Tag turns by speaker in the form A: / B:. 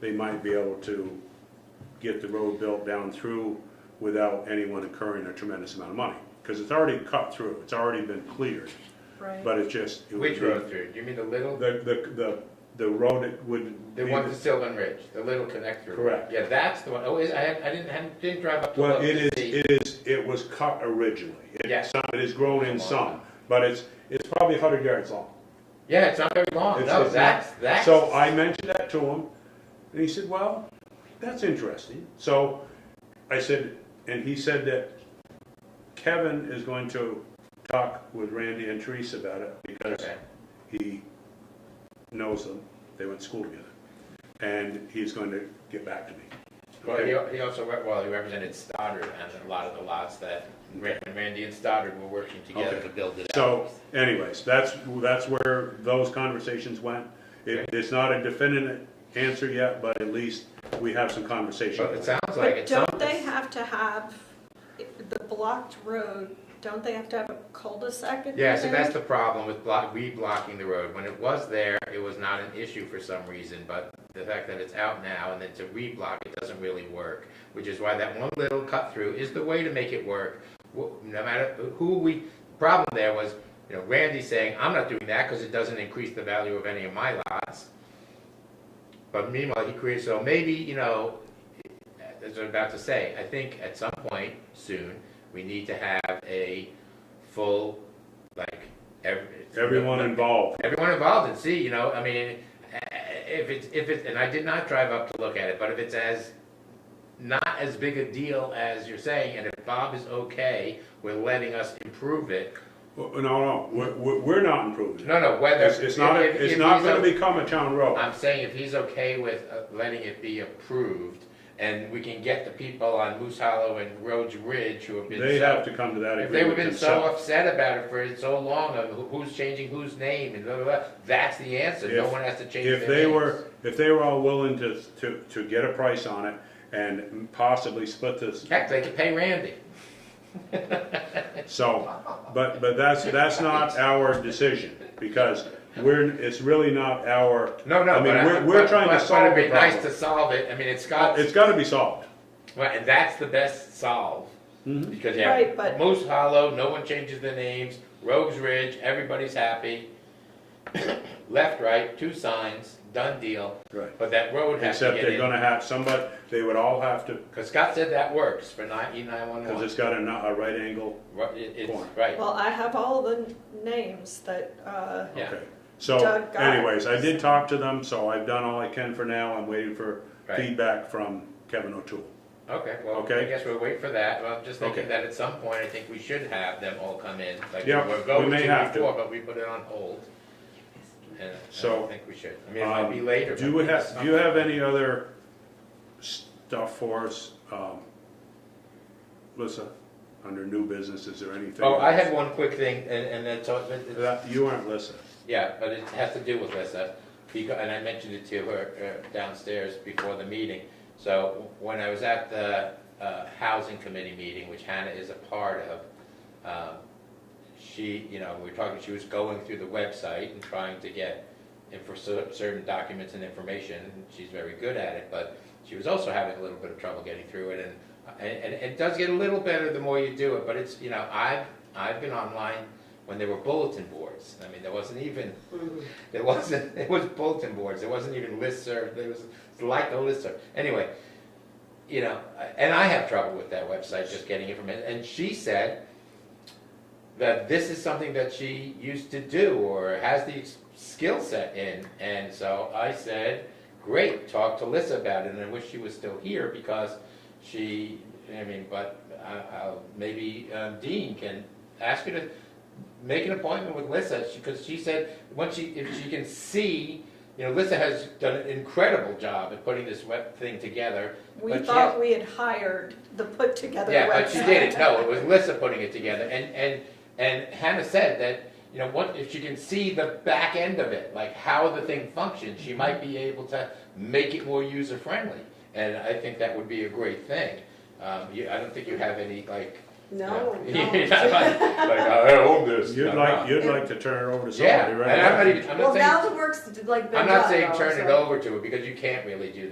A: they might be able to get the road built down through without anyone incurring a tremendous amount of money. Because it's already cut through, it's already been cleared,
B: right?
A: but it's just. it would
C: Which
A: be-
C: road through? Do you mean the little,
A: The, the, the, the road that would.
C: the
A: be
C: one to Sylvan Ridge, the little connector? road?
A: Correct.
C: Yeah, that's the one. Oh, is, I hadn't, I didn't, hadn't- didn't drive up to
A: Well,
C: look
A: it is,
C: to see.
A: it is, it was cut originally. It-
C: Yeah.
A: some- It is grown in some, but it's, it's probably a hundred yards long.
C: Yeah, it's not very long.
A: It's-
C: No,
A: it's not-
C: that's, that's.
A: So I mentioned that to him, and he said, well, that's interesting. So I said, and he said that Kevin is going to talk with Randy and Teresa about it because
C: Okay.
A: he knows them, they went to school together. And he's going to get back to me.
C: Well,
A: Okay?
C: he, he also, re- well, he represented Stoddard on a lot of the lots that Ra- Randy and Stoddard were working together
A: Okay.
C: to build it out.
A: So anyways, that's, that's where those conversations went. It, it's not a definitive answer yet, but at least we have some conversation.
C: But it sounds like
B: But
C: it's. some-
B: don't they have to have the blocked road, don't they have to have a cul-de-sac in
C: Yeah, so
B: there?
C: that's the problem with block, we blocking the road. When it was there, it was not an issue for some reason, but the fact that it's out now and then to reblock, it doesn't really work. Which is why that one little cut through is the way to make it work. Wh- No matter who we, problem there was, you know, Randy saying, I'm not doing that because it doesn't increase the value of any of my lots. But meanwhile, he creates, so maybe, you know, as I'm about to say, I think at some point soon, we need to have a full, like, every.
A: Everyone involved.
C: Everyone involved and see, you know, I mean, eh, if it's, if it's, and I did not drive up to look at it, but if it's as, not as big a deal as you're saying, and if Bob is okay with letting us improve it,
A: Oh, No, no, we're, we're we're not improving. it.
C: no, no, whether.
A: It's, it's not,
C: if- if-
A: a- it's
C: if
A: not
C: he's
A: gonna
C: o-
A: become a town road.
C: I'm saying if he's okay with uh, letting it be approved, and we can get the people on Moose Hollow and Rhodes Ridge who have been.
A: They
C: so-
A: have to come to that
C: If they've
A: agreement
C: been so
A: themselves.
C: upset about it for so long, of who- who's changing whose name and blah, blah, blah, that's the answer, no
A: If-
C: one has to change their
A: If they
C: names.
A: were, if they were all willing to, to, to get a price on it and possibly split this,
C: Heck, they could pay Randy.
A: so, but, but that's, that's not our decision, because we're, it's really not our.
C: No, no,
A: I mean,
C: but.
A: we're, we're
C: but-
A: trying
C: but-
A: to solve
C: But
A: the
C: it'd be nice to
A: problem.
C: solve it, I mean, it's Scott's.
A: It's gotta be solved.
C: Right, and that's the best solve. Because you
B: Right, but-
C: have Moose Hollow, no one changes the names, Rogues Ridge, everybody's happy. Left, right, two signs, done deal.
A: Right.
C: But that road has to
A: Except
C: get
A: they're
C: in,
A: gonna have, somebody, they would all have to,
C: because Scott said that works for nine, E nine one
A: cause
C: one.
A: it's got a, a right angle, corner.
C: It's, right,
B: Well, I have all the names that, uh,
C: Yeah.
A: okay. So
B: Doug got it.
A: anyways, I did talk to them, so I've done all I can for now, I'm waiting for
C: Right.
A: feedback from Kevin O'Toole.
C: okay, well, I
A: Okay.
C: guess we'll wait for that, well, I'm just thinking
A: Okay.
C: that at some point, I think we should have them all come in. like
A: Yeah,
C: were
A: we
C: going
A: may have to.
C: before, But we put it on hold. And I
A: So,
C: don't think we should, I mean, it might be
A: Um,
C: later.
A: Do
C: but
A: we have, do you
C: something.
A: have any other stuff for us? Um, Lisa, under new business, is there anything?
C: Oh, I had one quick thing, and, and that's, all- that- that-
A: That- You aren't Lisa.
C: yeah, but it has to do with Lissa, because, and I mentioned it to her uh, downstairs before the meeting. So when I was at the, uh, housing committee meeting, which Hannah is a part of, um, she, you know, we were talking, she was going through the website and trying to get and for cer- certain documents and information, and she's very good at it, but she was also having a little bit of trouble getting through it, and, and, and it does get a little better the more you do it, but it's, you know, I've, I've been online when there were bulletin boards, I mean, there wasn't even, there wasn't, it was bulletin boards, there wasn't even listserv, there was, it's like a listserv, anyway, you know, and I have trouble with that website, just getting information, and she said, that this is something that she used to do or has the ex- skill set in. And so I said, great, talk to Lissa about it. And I wish she was still here because she, I mean, but I, I'll, maybe um, Dean can ask her to make an appointment with Lissa because she said, once she, if she can see, you know, Lissa has done an incredible job at putting this web thing together.
B: we
C: but she has-
B: thought we had hired the put-together website.
C: yeah, but she did it. No, it was Lissa putting it together, and and and Hannah said that you know what if she can see the back end of it, like how the thing functions, she might be able to make it more user friendly, and I think that would be a great thing. Um, you, I don't think you have any like. you
B: No,
C: know,
B: no.
C: you're not like, like, "Oh, I own this.
A: You'd
C: No,
A: like,
C: no.
A: you'd like to turn it over to somebody,
C: Yeah,
A: right?
C: and I'm not even. I'm not
D: Well,
C: saying,
D: now the work's like been
C: I'm not
D: done,
C: saying
D: though,
C: turn it
D: so-
C: over to her because you can't really do